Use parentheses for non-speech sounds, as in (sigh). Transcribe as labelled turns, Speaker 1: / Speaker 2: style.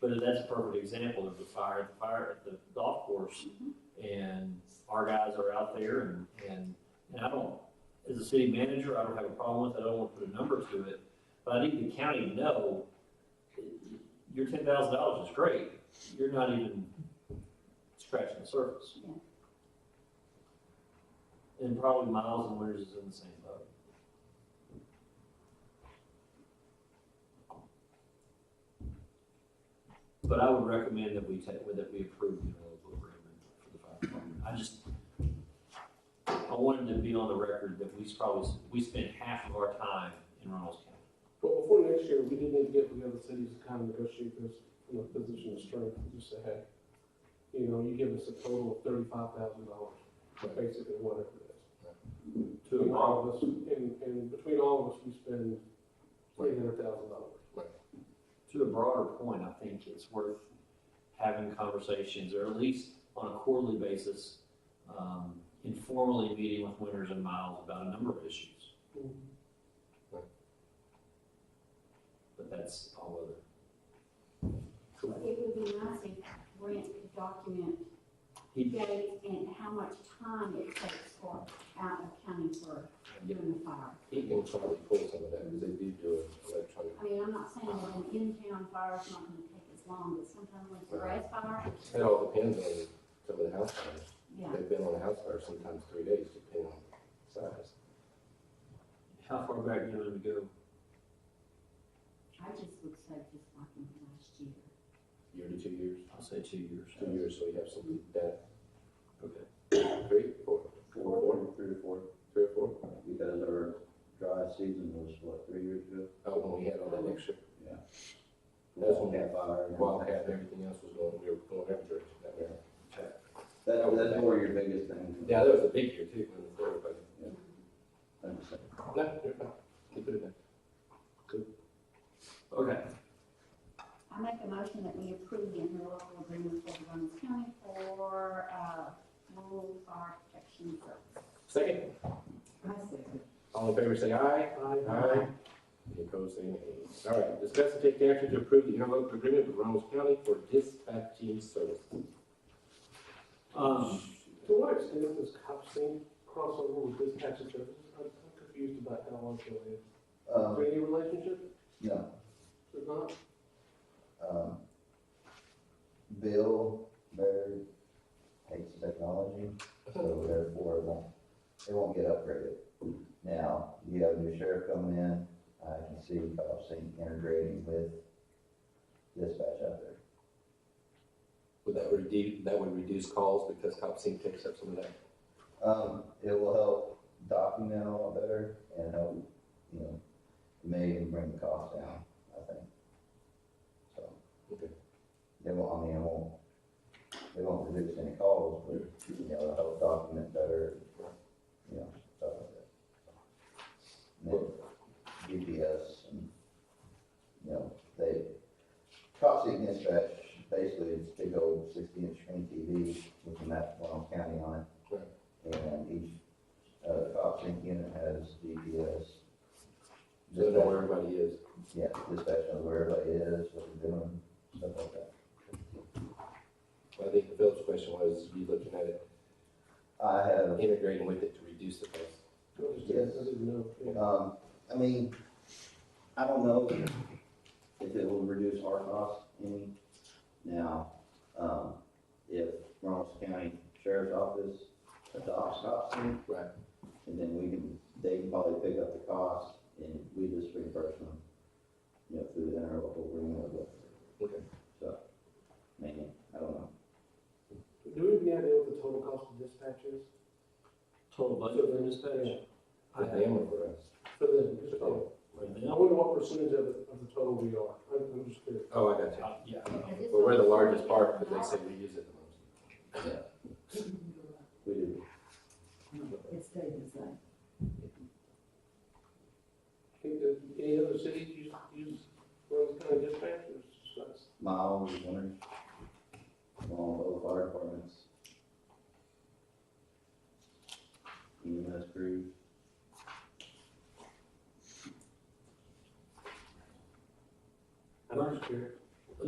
Speaker 1: But that's a perfect example of the fire, at the fire at the golf course. And our guys are out there and, and, and I don't, as a city manager, I don't have a problem with it. I don't want to put a number to it. But I think the county know, your ten thousand dollars is great. You're not even scratching the surface.
Speaker 2: Yeah.
Speaker 1: And probably Miles and Winters is in the same boat. But I would recommend that we take, that we approve the interlocal agreement for the fire department. I just, I wanted to be on the record that we probably, we spent half of our time in Reynolds County.
Speaker 3: But before next year, we do need to get with the other cities to kind of negotiate this from a position of strength, and just say, hey, you know, you give us a total of thirty-five thousand dollars, basically whatever it is. Between all of us, and, and between all of us, we spend three hundred thousand dollars.
Speaker 1: to a broader point, I think it's worth having conversations, or at least on a quarterly basis, um, informally meeting with Winters and Miles about a number of issues. Mm-hmm. But that's all other. Correct.
Speaker 2: It would be nice if Brent could document
Speaker 1: He,
Speaker 2: dates and how much time it takes for out of county for doing a fire.
Speaker 4: He can probably pull some of that, because they do do it electronic.
Speaker 2: I mean, I'm not saying that an in-town fire is not gonna take as long, but sometimes when it's a grass fire,
Speaker 4: It all depends on some of the house fires.
Speaker 2: yeah.
Speaker 4: They've been on a house fire sometimes three days, depending on the size.
Speaker 1: how far back do you want to go?
Speaker 2: I just would say just like in the last year.
Speaker 4: Year to two years,
Speaker 1: I'll say two years.
Speaker 4: two years, so you have some that,
Speaker 1: Okay.
Speaker 4: three, four,
Speaker 5: Four, four, three to four,
Speaker 4: three or four.
Speaker 5: because our dry season was, what, three years ago?
Speaker 4: Oh, when we had all that extra
Speaker 5: Yeah.
Speaker 4: That's when we
Speaker 5: Cat fire. and-
Speaker 4: wildcat and everything else was going, we were going every direction that way.
Speaker 5: That, that's more your biggest thing.
Speaker 4: Yeah, that was a big year too, when the Florida, but,
Speaker 5: Thanks.
Speaker 4: no, they're fine. They put it back.
Speaker 1: Okay,
Speaker 2: I make a motion that we approve the interlocal agreement for the Runnels County for, uh, rural fire protection service.
Speaker 4: Second,
Speaker 2: I second.
Speaker 4: all in favor, say aye. Aye. Any opposed, say nay. All right, discuss and take action to approve the interlocal agreement with Ramos County for dispatching service.
Speaker 1: um,
Speaker 3: To what extent does cop scene crossover with dispatch and services? I'm I'm confused about how long it is. Is
Speaker 5: Um,
Speaker 3: there any relationship?
Speaker 5: no,
Speaker 3: There's not?
Speaker 5: um, Bill Baird hates the technology, (laughs) so therefore it won't, it won't get upgraded. Now, you have a new sheriff coming in, I can see Kyle Singh integrating with dispatch out there.
Speaker 4: Would that reduce, that would reduce calls because cop sync takes up some of that?
Speaker 5: Um, it will help document a lot better and help, you know, maybe even bring the cost down, I think. So.
Speaker 4: Okay.
Speaker 5: They won't, I mean, it won't, they won't reduce any calls, but, you know, it'll help document better, you know, stuff like that. And then GPS and, you know, they, Cox City Dispatch, basically it's a big old sixty inch screen TV with the map of Long County on it. And each, uh, cop sync unit has GPS.
Speaker 4: So they know where everybody is.
Speaker 5: Yeah, dispatch knows where everybody is, what they're doing, stuff like that.
Speaker 4: I think Phil's question was, you looking at it,
Speaker 5: I have,
Speaker 4: integrating with it to reduce the cost?
Speaker 3: I just-
Speaker 5: Yes.
Speaker 3: I didn't know. Yeah.
Speaker 5: um, I mean, I don't know if it will reduce our cost any. Now, um, if Ronald County Sheriff's Office adopts cop sync,
Speaker 4: Right.
Speaker 5: and then we can, they can probably pick up the cost and we just reimburse them, you know, through the interlocal agreement or whatever.
Speaker 4: Okay.
Speaker 5: So, maybe, I don't know.
Speaker 3: Do we have any idea what the total cost of dispatch is?
Speaker 1: total budget for dispatch? I
Speaker 4: The
Speaker 1: have-
Speaker 4: family for us.
Speaker 3: For the, just-
Speaker 4: Oh.
Speaker 1: right
Speaker 3: I
Speaker 1: now,
Speaker 3: wonder what percentage of, the- of the total we are. I'm, I'm just curious.
Speaker 4: Oh, I got you.
Speaker 1: I- Yeah, I don't know.
Speaker 2: Because it's
Speaker 4: But we're the
Speaker 2: only
Speaker 4: largest part, but they
Speaker 2: $40,000.
Speaker 4: say we use it the most.
Speaker 5: We do,
Speaker 2: It stayed the same.
Speaker 3: Think that any other cities use, use Rose County dispatch or it's just us?
Speaker 5: miles, winters, all the fire departments. EMS crews.
Speaker 3: I'm just curious.